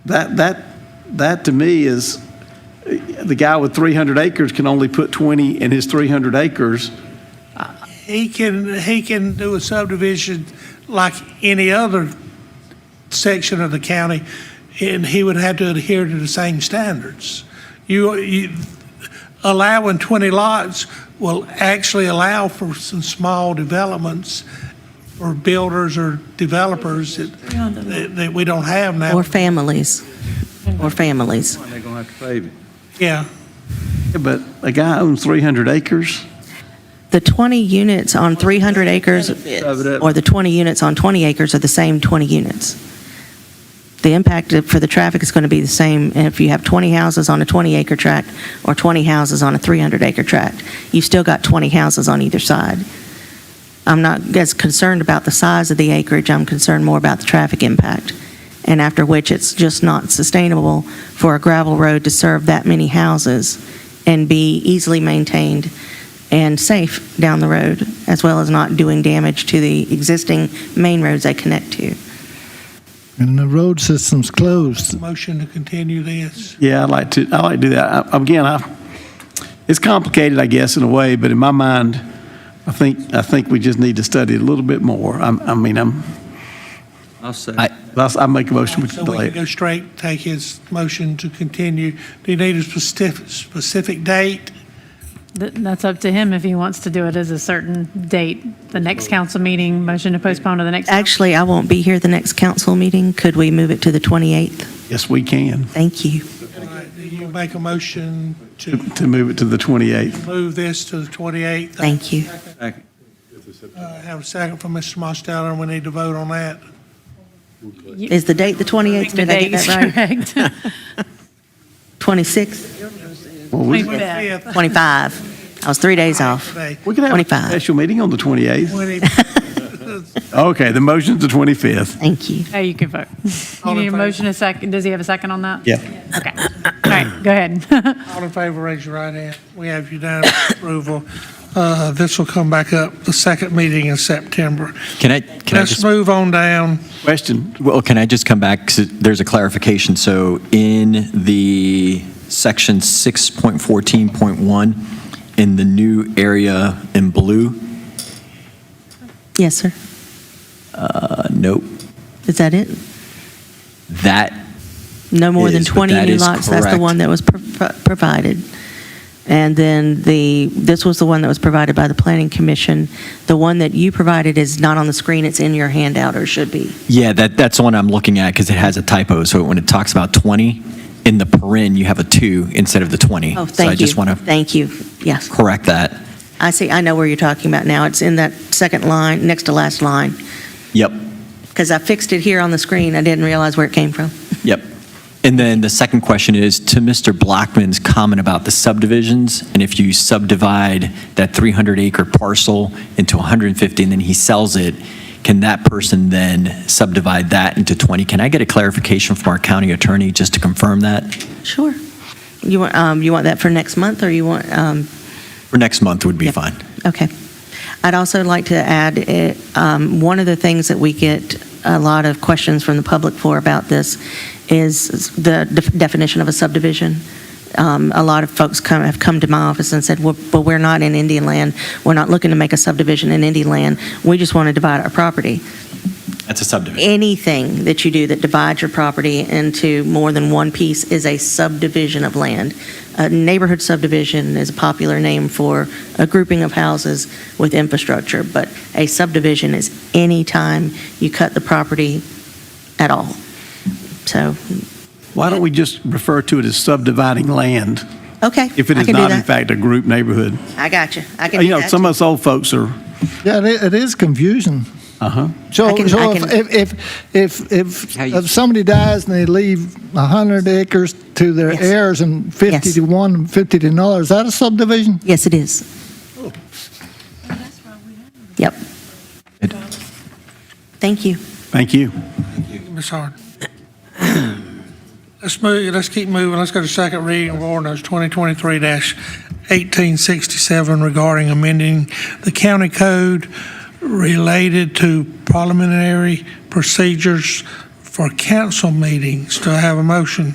That, that, that to me is, the guy with 300 acres can only put 20 in his 300 acres. He can, he can do a subdivision like any other section of the county, and he would have to adhere to the same standards. You, you, allowing 20 lots will actually allow for some small developments for builders or developers that, that- that we don't have now. Or families, or families. They're gonna have to pave it. Yeah, But a guy owns 300 acres, The 20 units on 300 acres, or the 20 units on 20 acres are the same 20 units. The impact of- for the traffic is going to be the same if you have 20 houses on a 20-acre tract or 20 houses on a 300-acre tract. You've still got 20 houses on either side. I'm not as concerned about the size of the acreage, I'm concerned more about the traffic impact, and after which it's just not sustainable for a gravel road to serve that many houses and be easily maintained and safe down the road, as well as not doing damage to the existing main roads they connect to. And the road system's closed. motion to continue this. yeah, I'd like to, I like to do that. I- Again, I, it's complicated, I guess, in a way, but in my mind, I think, I think we just need to study it a little bit more. I'm, I mean, I'm, I'll say. I I make a motion, we So we delay can it. go straight, take his motion to continue. Do you need a specific, specific date? Th- That's up to him if he wants to do it as a certain date, the next council meeting, motion to postpone to the next. Actually, I won't be here the next council meeting. Could we move it to the 28th? Yes, we can, Thank you. All right, do You make a motion to to move it to the 28th. move this to the 28th. Thank you. Second. Uh, Have a second from Mr. Mostello, and we need to vote on that. Is the date the 28th? The Did I date get is that right? correct. 26th, Well, we, Twenty- Yeah. 25th 25. I was three days off. today. we can have a 25. special meeting on the 28th. 20 Okay, the motion's the 25th. Thank you. Now you can vote. All You in need a favor? motion, a second, does he have a second on that? Yeah. Okay, all right, go ahead. All in favor, raise your right hand. We have unanimous approval. Uh, This will come back up the second meeting in September. Can I, can I Let's just, move on down. Question, well, can I just come back? 'Cause There's a clarification. So in the section 6.14.1, in the new area in blue, Yes, sir. uh, nope, Is that it? that, No more than Is, but 20 that new is lots. That's the correct. one that was pro- pro- provided. And then the, this was the one that was provided by the Planning Commission. The one that you provided is not on the screen, it's in your handout, or should be. yeah, that, that's the one I'm looking at because it has a typo. So when it talks about 20, in the paren, you have a 2 instead of the 20. Oh, So I thank you. just want to Thank you. Yes. correct that. I see, I know where you're talking about now. It's in that second line, next to last line, Yep, because I fixed it here on the screen. I didn't realize where it came from. Yep. And then the second question is to Mr. Blackman's comment about the subdivisions, and if you subdivide that 300-acre parcel into 150 and then he sells it, can that person then subdivide that into 20? Can I get a clarification from our county attorney just to confirm that? Sure. You want, um, you want that for next month, or you want, um, For next month would be Yep. fine. Okay. I'd also like to add, eh, um, one of the things that we get a lot of questions from the public for about this is the def- definition of a subdivision. Um, A lot of folks come, have come to my office and said, well, but we're not in Indian land. We're not looking to make a subdivision in Indian land. We just want to divide our property That's a subdivision. anything that you do that divides your property into more than one piece is a subdivision of land. A neighborhood subdivision is a popular name for a grouping of houses with infrastructure, but a subdivision is any time you cut the property at all. So, why don't we just refer to it as subdividing land okay. if it I is can do not in that. fact a group neighborhood? Uh, I got you. I can You do know, that. some of us old folks are, Yeah, it i- it is confusion. uh-huh. I So, can- so I if, can- if, if, if, How you- if somebody dies and they leave 100 acres to their Yes. heirs and 50 Yes. to one and 50 to another, is that a subdivision? Yes, it is. Oh. Yep. It- Thank you. Thank you. Ms. Hard. Let's move, let's keep moving. Let's go to second reading of ordinance 2023-1867 regarding amending the county code related to parliamentary procedures for for council meetings. Do I have a motion?